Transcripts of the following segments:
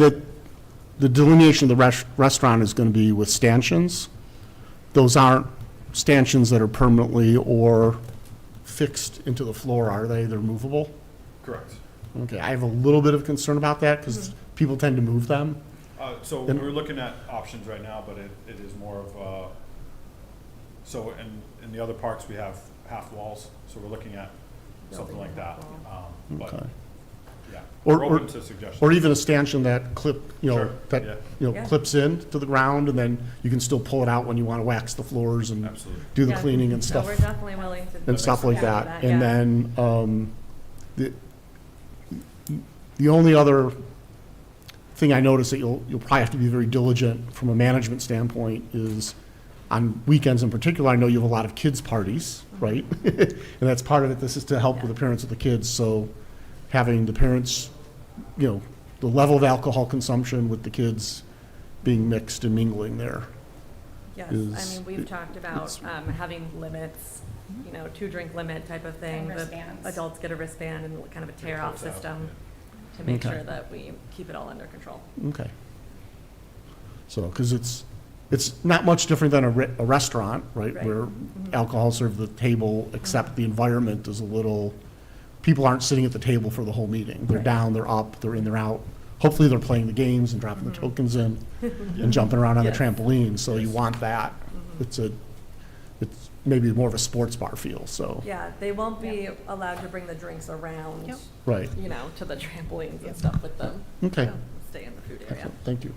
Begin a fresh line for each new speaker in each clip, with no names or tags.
that the delineation of the res- restaurant is going to be with stanchions. Those aren't stanchions that are permanently or fixed into the floor, are they? They're movable?
Correct.
Okay, I have a little bit of concern about that because
Mm-hmm.
people tend to move them.
Uh, So
Then-
we're looking at options right now, but it, it is more of, uh, so in, in the other parks, we have half walls, so we're looking at something like that. Um, But,
Okay.
yeah,
Or-
we're
or-
open to suggestions.
Or even a stanchion that clip, you
Sure,
know,
yeah.
that, you know,
Yeah.
clips in to the ground and then you can still pull it out when you want to wax the floors and
Absolutely.
do the
Yeah.
cleaning and
So
stuff.
we're definitely willing to.
and stuff like
Yeah.
that.
Yeah.
And then, um, the, the only other thing I noticed that you'll, you'll probably have to be very diligent from a management standpoint is on weekends in particular, I know you have a lot of kids' parties,
Mm-hmm.
right? And that's part of it, this is to help with the parents of the kids, so having the parents, you know, the level of alcohol consumption with the kids being mixed and mingling there.
Yes,
is-
I mean, we've talked about
it's-
um, having limits, you know, two drink limit type of thing.
And
The
wristbands.
Adults get a wristband and kind of a tear off
It's out,
system
yeah.
to make
Okay.
sure that we keep it all under control.
Okay. So, because it's, it's not much different than a re- a restaurant, right?
Right.
Where alcohol served at the table, except the environment is a little, people aren't sitting at the table for the whole meeting. They're
Right.
down, they're up, they're in, they're out. Hopefully, they're playing the games and dropping the tokens in and jumping around on the
Yes.
trampoline, so you
Yes.
want that. It's a, it's maybe more of a sports bar feel, so,
Yeah, they won't be allowed to bring the drinks around,
Yep.
right.
you know, to the trampolines and stuff with them.
Okay.
So Stay in the food area.
Excellent. Thank you.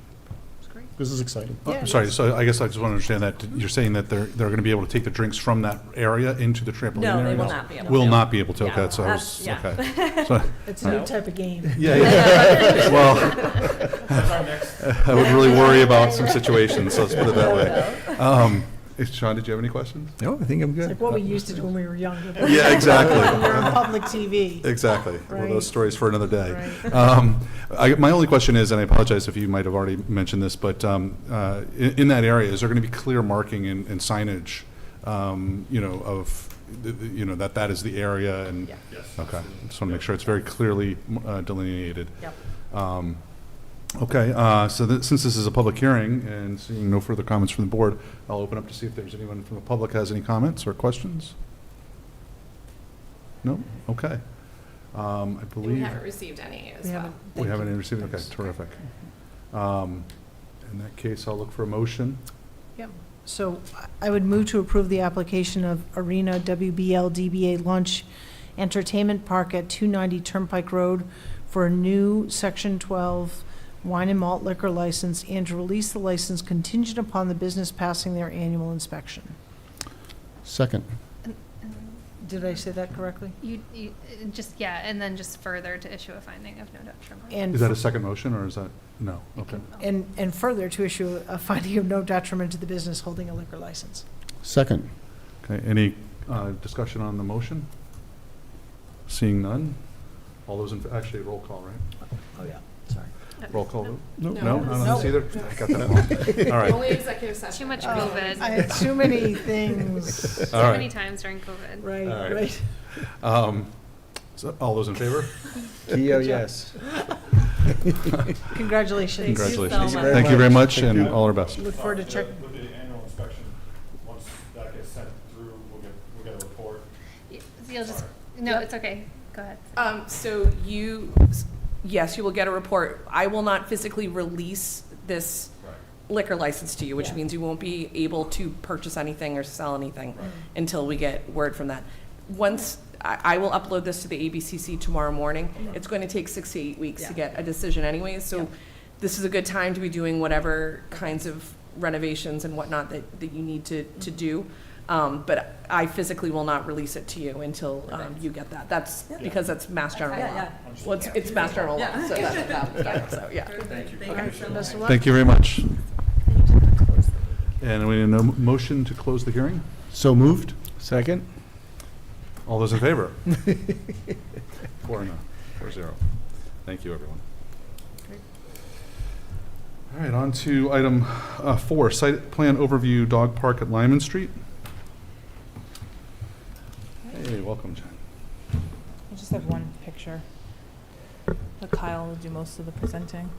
great.
This is exciting.
Oh, I'm sorry, so I guess I just want to understand that, you're saying that they're, they're going to be able to take the drinks from that area into the trampoline area?
No, they will not be able to.
Will not be able to,
Yeah.
okay, so I
That's-
was,
yeah.
okay. So-
It's a new type of game.
Yeah, yeah. well,
That's our next,
I would really worry about some situations, so let's put it that way. Um, eh, Sean, did you have any questions?
No, I think I'm
It's
good.
like what we used to do when we were younger.
Yeah, exactly.
When we were on public TV.
Exactly. Well,
Right.
those stories for another day. Um, I, my only question is, and I apologize if you might have already mentioned this, but um, uh, in, in that area, is there going to be clear marking and, and signage, um, you know, of, the- the- you know, that that is the area and?
Yeah.
yes.
Okay, just want to make sure it's very clearly uh, delineated.
Yep.
Um, Okay, uh, so that- since this is a public hearing and seeing no further comments from the board, I'll open up to see if there's anyone from the public has any comments or questions? No? Okay. Um, I
We
believe
haven't received any as
We
well.
haven't-
we
thank
haven't
you.
received, okay,
Thanks.
terrific. Um, In that case, I'll look for a motion.
So I would move to approve the application of Arena WBL DBA Lunch Entertainment Park at 290 Turnpike Road for a new Section 12 wine and malt liquor license and to release the license contingent upon the business passing their annual inspection.
Second.
Did I say that correctly?
You, you, uh, just, yeah, and then just further to issue a finding of no detriment.
And
Is that a second motion, or is that, no? Okay.
And, and further, to issue a finding of no detriment to the business holding a liquor license.
Second.
Okay, any uh, discussion on the motion? Seeing none? All those in, actually, roll call, right?
Oh, yeah, sorry.
Roll call vote?
No.
No, none of us
No.
either? I got that wrong. All right.
Only executive session. Oh. Too much COVID.
I had too many things.
All
Too many
right.
times during COVID.
Right,
All right.
right.
Um, so All those in favor?
Keo, yes.
Congratulations.
Congratulations.
so
Thank you very much, and
Thank you.
all our best.
Look forward to
Uh,
check,
With the annual inspection, once that gets sent through, we'll get, we'll get a report.
Y- You'll just, no, it's okay. Go ahead.
Um, so you, yes, you will get a report. I will not physically release this
Right.
liquor license to you, which
Yeah.
means you won't be able to purchase anything or sell anything
Right.
until we get word from that. Once, I, I will upload this to the ABCC tomorrow morning. It's going to take six to eight weeks to
Yeah.
get a decision anyways,
Yeah.
so this is a good time to be doing whatever kinds of renovations and whatnot that, that you need to, to
Mm-hmm.
do. Um, but I physically will not release it to you until, um, you get that. That's
Yeah.
because that's Mass General
Yeah,
law.
yeah.
Well, it's, it's Mass General law, so that, that, that- so, yeah.
Thank you.
Thank you so much.
best of luck.
Thank you very much. And we need a no- motion to close the hearing?
So moved?
Second?
All those in favor? Four and a, four zero. Thank you, everyone. All right, on to item uh, four, site plan overview, dog park at Lyman Street. Hey, welcome, Jen.
I just have one picture. But Kyle will do most of the presenting.